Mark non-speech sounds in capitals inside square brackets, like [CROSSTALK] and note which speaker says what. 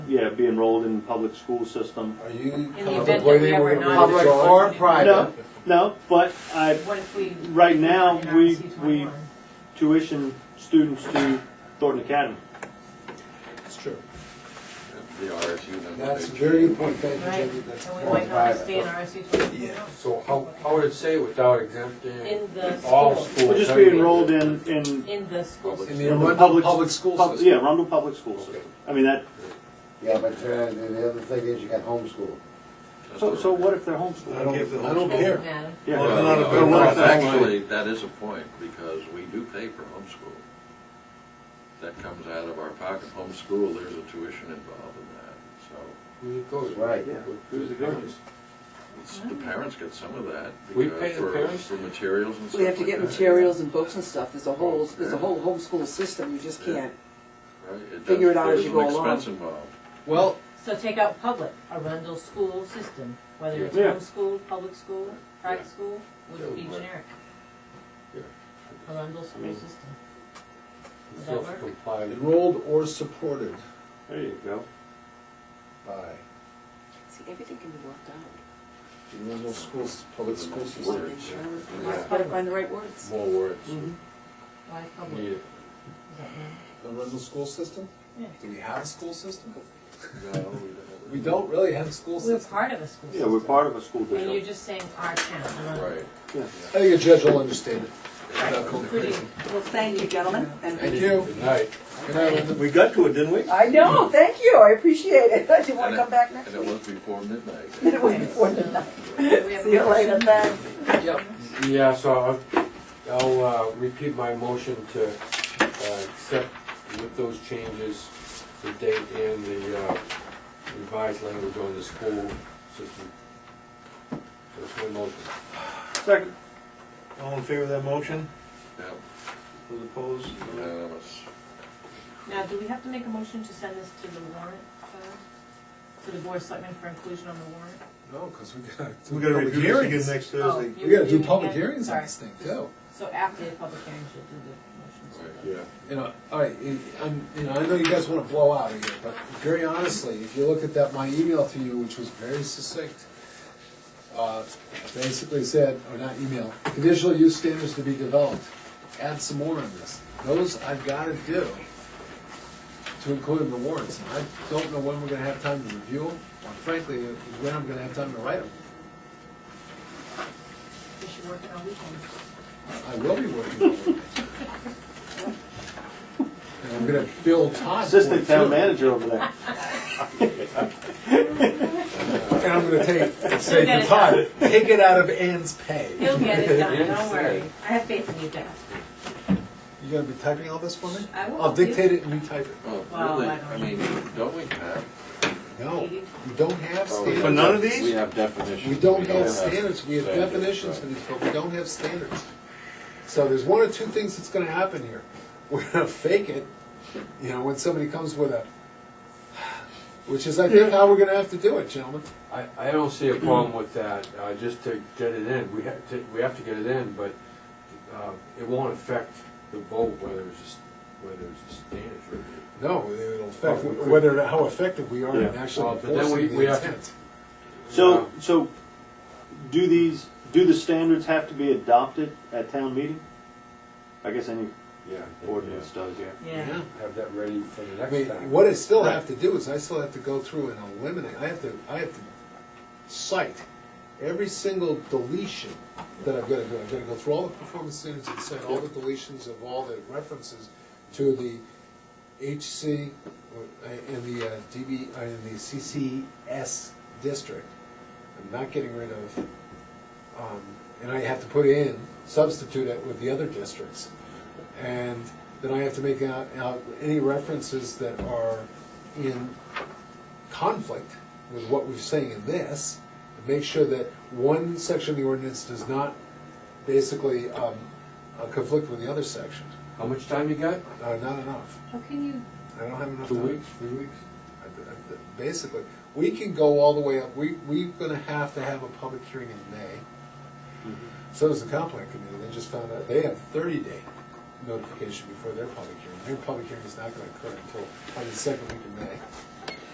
Speaker 1: yeah, be enrolled in the public school system.
Speaker 2: Are you
Speaker 3: that we
Speaker 2: contemplating
Speaker 3: ever
Speaker 2: we're going to
Speaker 3: not-
Speaker 2: bring the
Speaker 4: Public or
Speaker 2: charge?
Speaker 1: No,
Speaker 4: private?
Speaker 1: no, but I,
Speaker 3: What if we?
Speaker 1: right now,
Speaker 3: We're not
Speaker 1: we, we
Speaker 3: C21.
Speaker 1: tuition students to Thornton Academy.
Speaker 5: It's true.
Speaker 6: The RSU number.
Speaker 2: That's a
Speaker 6: they
Speaker 2: very
Speaker 6: changed.
Speaker 2: important thing.
Speaker 3: Right,
Speaker 2: Jimmy, that's
Speaker 3: and we
Speaker 2: going
Speaker 3: might not
Speaker 2: private.
Speaker 3: stay in our C twenty-four.
Speaker 5: Yeah.
Speaker 4: So how,
Speaker 6: I would say without exempting
Speaker 3: In the
Speaker 6: all
Speaker 3: school,
Speaker 6: schools.
Speaker 1: We'll just be enrolled in, in,
Speaker 3: in the school.
Speaker 6: Public.
Speaker 5: In
Speaker 1: In
Speaker 5: the
Speaker 1: the
Speaker 5: Arundel
Speaker 1: public-
Speaker 5: Public School
Speaker 1: pub-
Speaker 5: System.
Speaker 1: yeah, Rundle Public School System. I mean, that,
Speaker 2: Yeah, but uh, the the other thing is you got homeschool.
Speaker 1: so, so what if they're homeschooled?
Speaker 2: I don't,
Speaker 5: I don't
Speaker 3: Doesn't
Speaker 5: care.
Speaker 3: matter.
Speaker 1: Yeah.
Speaker 6: Well,
Speaker 2: Well,
Speaker 6: no,
Speaker 2: not a-
Speaker 6: no,
Speaker 2: not a-
Speaker 6: Actually, that is a point, because we do pay for homeschool. That comes out of our pocket. Homeschool, there's a tuition involved in that, so.
Speaker 2: right.
Speaker 1: Yeah, who's the guardians?
Speaker 6: it's- The parents get some of that.
Speaker 7: We
Speaker 6: because
Speaker 7: pay the
Speaker 6: for-
Speaker 7: parents?
Speaker 6: For materials and stuff
Speaker 8: We have to
Speaker 6: like
Speaker 8: get
Speaker 6: that.
Speaker 8: materials and books and stuff, there's a whole, there's a whole homeschool system, you just can't.
Speaker 6: Right, does-
Speaker 8: figure it out as
Speaker 6: there's
Speaker 8: you
Speaker 6: an
Speaker 8: go along.
Speaker 6: expense involved.
Speaker 5: Well,
Speaker 3: So take out public, Arundel school system, whether it's
Speaker 1: Yeah.
Speaker 3: homeschool, public school, private
Speaker 6: Yeah.
Speaker 3: school, would be
Speaker 6: Yeah.
Speaker 3: generic.
Speaker 6: Yeah.
Speaker 3: Arundel school
Speaker 1: mean-
Speaker 3: system. Does that work?
Speaker 7: Self-compliant.
Speaker 5: enrolled or supported
Speaker 1: There you go.
Speaker 5: by
Speaker 8: See, everything can be worked out.
Speaker 5: the Arundel Schools, Public School System.
Speaker 6: Words,
Speaker 8: We
Speaker 6: yeah.
Speaker 8: just gotta find the right words.
Speaker 6: More words.
Speaker 3: Why public?
Speaker 6: Need
Speaker 3: Is
Speaker 6: it.
Speaker 3: that
Speaker 5: The Arundel School System?
Speaker 3: Yeah.
Speaker 5: Do we have a school system?
Speaker 6: No,
Speaker 5: We don't really have a school
Speaker 3: right? We're
Speaker 5: system.
Speaker 3: part of a school
Speaker 1: Yeah, we're
Speaker 3: system,
Speaker 1: part of a school
Speaker 3: and you're
Speaker 1: district.
Speaker 3: just saying our town, Arundel.
Speaker 6: Right.
Speaker 1: Yeah.
Speaker 5: I think a judge will understand it.
Speaker 1: [LAUGHS]
Speaker 3: Pretty.
Speaker 8: Well, thank you, gentlemen, and.
Speaker 5: Thank you.
Speaker 7: Good night.
Speaker 5: Good night, Linda.
Speaker 1: We got to it, didn't we?
Speaker 8: I know, thank you, I appreciate it, [LAUGHS] I didn't wanna
Speaker 6: And it-
Speaker 8: come back next
Speaker 6: And it
Speaker 8: week.
Speaker 6: was before midnight.
Speaker 8: And [LAUGHS] it was before the night,
Speaker 3: We have
Speaker 8: see you later, thanks.
Speaker 5: Yep.
Speaker 7: Yeah, so I'll- I'll uh, repeat my motion to uh, accept with those changes, the date and the uh, revised language on the school system. That's my motion.
Speaker 1: Second.
Speaker 9: All in favor of that motion?
Speaker 6: Yeah,
Speaker 9: Those opposed?
Speaker 6: unanimous.
Speaker 3: Now, do we have to make a motion to send this to the warrant, uh, to the board of selectmen for inclusion on the warrant?
Speaker 5: No, because we gotta. do
Speaker 9: We gotta
Speaker 5: public
Speaker 9: review it again
Speaker 5: hearings.
Speaker 9: next Thursday.
Speaker 3: Oh,
Speaker 5: We gotta
Speaker 3: you're
Speaker 5: do
Speaker 3: doing it
Speaker 5: public
Speaker 3: again?
Speaker 5: hearings on
Speaker 3: Sorry.
Speaker 5: this thing too.
Speaker 3: So after the public hearing, she'll do the motions.
Speaker 6: Right.
Speaker 5: You know, all right, you- I'm, you know, I know you guys wanna blow out of here, but very honestly, if you look at that, my email to you, which was very succinct, uh, basically said, or not email, conditional use standards to be developed, add some more on this. Those I've gotta do to include in the warrants, and I don't know when we're gonna have time to review them, or frankly, when I'm gonna have time to write them.
Speaker 3: Is she working on weekends? [LAUGHS]
Speaker 5: I will be working on them. And I'm gonna bill
Speaker 1: [LAUGHS]
Speaker 5: Todd for it
Speaker 1: Assistant town
Speaker 5: too.
Speaker 1: manager over there.
Speaker 5: And I'm gonna
Speaker 3: [LAUGHS]
Speaker 5: take,
Speaker 3: You'll
Speaker 5: say
Speaker 3: get
Speaker 5: to
Speaker 3: it
Speaker 5: Todd, take it out of Ann's pay.
Speaker 3: He'll get it done,
Speaker 5: [LAUGHS]
Speaker 3: don't
Speaker 7: Yes.
Speaker 3: worry. I have faith in you, Dad.
Speaker 5: You gonna be typing all this for me?
Speaker 3: I will.
Speaker 5: I'll dictate it and you type it.
Speaker 6: Well,
Speaker 3: Wow,
Speaker 6: Oh, really,
Speaker 3: I don't
Speaker 6: I mean, don't we have?
Speaker 5: No, you don't have
Speaker 7: Oh,
Speaker 6: we
Speaker 9: For
Speaker 6: have
Speaker 5: standards.
Speaker 9: none of
Speaker 6: def-
Speaker 9: these?
Speaker 6: We have definitions.
Speaker 5: We don't have
Speaker 6: have
Speaker 5: standards, we have
Speaker 6: standards,
Speaker 5: definitions for
Speaker 6: right.
Speaker 5: these, but we don't have standards. So there's one or two things that's gonna happen here. [LAUGHS] We're gonna fake it, you know, when somebody comes with a, which is, I think, how we're gonna have to do it, gentlemen.
Speaker 7: I, I don't see a problem with that, uh, just to get it in, we have to, we have to get it in, but, uh, it won't affect the vote whether it's, a s- whether it's a standards review.
Speaker 5: No, it'll affect
Speaker 7: Well, Oh, we could-
Speaker 5: whether, how effective we are in
Speaker 1: Yeah.
Speaker 5: actually
Speaker 7: Well, but then we-
Speaker 5: enforcing
Speaker 7: we
Speaker 5: the
Speaker 7: have to-
Speaker 5: intent.
Speaker 1: So, so, do these, do the standards have to be adopted at town meeting? I guess any
Speaker 7: Yeah.
Speaker 1: ordinance does, yeah.
Speaker 3: Yeah.
Speaker 7: Have that ready for the
Speaker 5: I mean,
Speaker 7: next time.
Speaker 5: what I still have to do is I still have to go through and eliminate, I have to, I have to cite every single deletion that I've got to do. I've got to go through all the performance standards and cite all the deletions of all the references to the HC uh, and the uh, DB, uh, and the CCS district. I'm not getting rid of, um, and I have to put in, substitute it with the other districts. And then I have to make out, out any references that are in conflict with what we're saying in this, and make sure that one section of the ordinance does not basically, um, uh, conflict with the other section.
Speaker 7: How much time you got?
Speaker 5: Uh, not enough.
Speaker 3: How can you,
Speaker 5: I don't have enough
Speaker 7: Two
Speaker 5: time.
Speaker 7: weeks, three weeks?
Speaker 5: I- I- Basically, we can go all the way up, we, we're gonna have to have a public hearing in May.
Speaker 7: Mm-hmm.
Speaker 5: So does the complaint committee, they just found out, they have thirty day notification before their public hearing. Their public hearing is not gonna occur until, probably the second week of May.